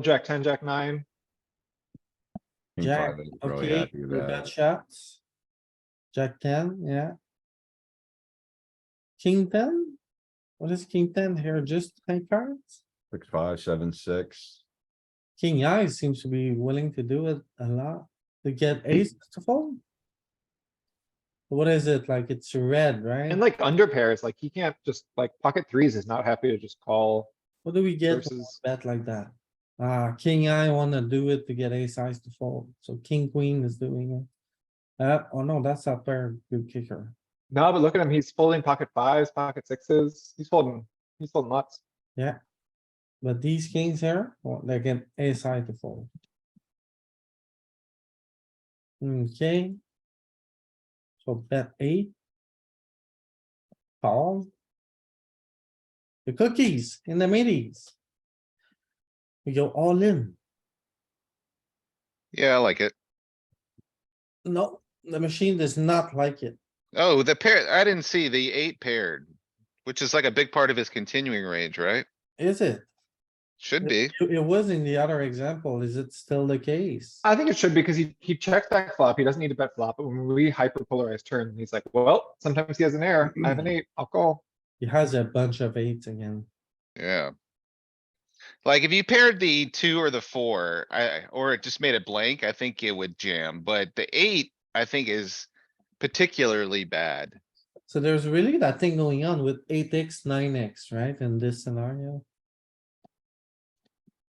jack ten, jack nine, King Jack, five ain't really Okay, happy we with got that. shots. Jack ten, yeah. King ten? What is king ten here? Just high cards? Six, five, seven, six. King eye seems to be willing to do it a lot to get ace to fold. What is it? Like it's red, right? and like under pairs, like he can't just, like pocket threes is not happy to just call What do we get with a versus. bet like that? Uh, king eye wanna do it to get ace size to fold, so king queen is doing it. Uh, oh no, that's a pair good kicker. No, but look at him, he's folding pocket fives, pocket sixes, he's folding, he's folding lots. But these kings here, well, they get a side to fold. Okay. So bet eight. Call. The cookies in the middies. We go all in. Yeah, I like it. No, the machine does not like it. Oh, the pair, I didn't see the eight paired, which is like a big part of his continuing range, right? Is it? Should be. It it was in the other example. Is it still the case? I think it should because he, he checks back flop, he doesn't need to bet flop, but when we hyper polarize turn, he's like, well, sometimes he has an error, I have an eight, I'll call. He has a bunch of eights again. Yeah. Like if you paired the two or the four, I, or it just made it blank, I think it would jam, but the eight, I think is particularly bad. So there's really that thing going on with eight X, nine X, right, in this scenario?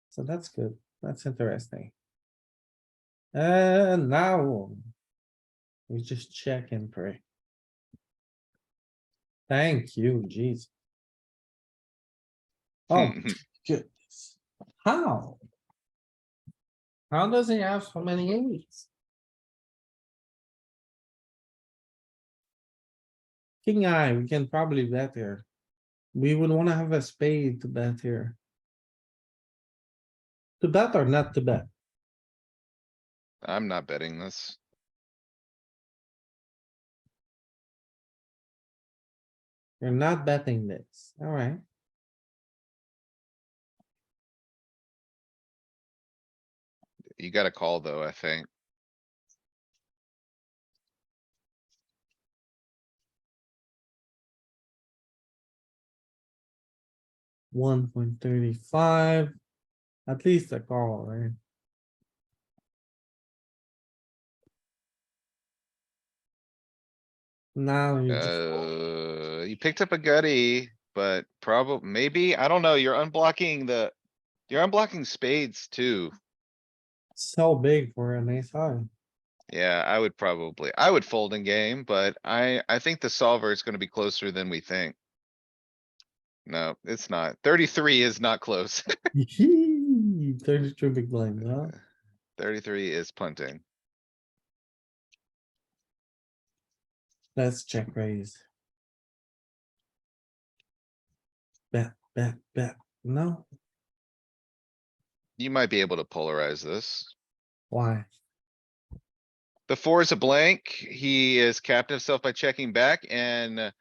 So that's good, that's interesting. Uh, now. We just check and pray. Thank you, jeez. Hmm. Oh, goodness, how? How does he have so many eights? King eye, we can probably bet here. We would wanna have a spade to bet here. To bet or not to bet? I'm not betting this. You're not betting this, alright. You gotta call though, I think. One point thirty-five. At least a call, right? Now you just fold. Uh, you picked up a gutty, but probably, maybe, I don't know, you're unblocking the, you're unblocking spades too. so big for an ace high. Yeah, I would probably, I would fold in game, but I, I think the solver is gonna be closer than we think. No, it's not. Thirty-three is not close. Thirty-two big blind, huh? Thirty-three is punting. Let's check raise. Bet, bet, bet. No, You might be able to polarize this. why? The four is a blank. He is capped himself by checking back and uh,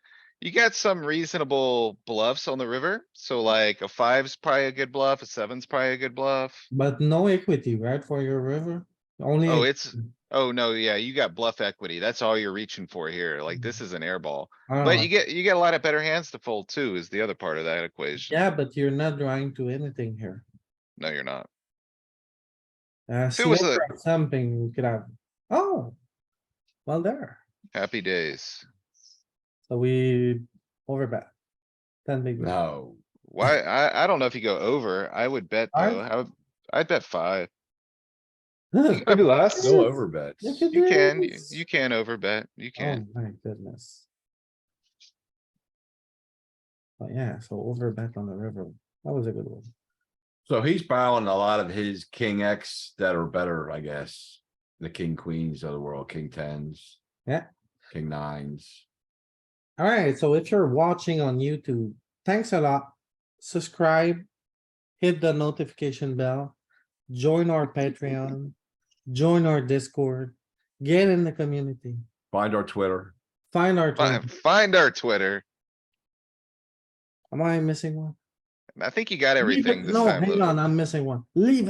you got some reasonable bluffs on the river. So like a five's probably a good bluff, a seven's probably a good bluff. But no equity, right, for your river? Only. Oh, it's, oh no, yeah, you got bluff equity. That's all you're reaching for here. Like this is an airball. Uh-huh. But you get, you get a lot of better hands to fold too is the other part of that equation. Yeah, but you're not drawing to anything here. No, you're not. Uh, it was sliver of something we could have. Oh. Well, there. Happy days. So we overbet. Ten big. blind. No. Why, I, I don't know if you go over. I would bet Five? though. I would, I'd bet five. Look Maybe less, No overbets. Look at You can, you- this. you can over bet. You Oh can. my goodness. But yeah, so overbet on the river. That was a good one. So he's bowing a lot of his king X that are better, I guess. The king queens of the world, king tens. Yeah. King nines. Alright, so if you're watching on YouTube, thanks a lot. Subscribe. Hit the notification bell. Join our Patreon. Join our Discord. Get in the community. Find our Twitter. Find our. Fi- Twitter. Find our Twitter. Am I missing one? I think you got Leave it- everything this No, time. hang Louis. on, I'm missing one. Leave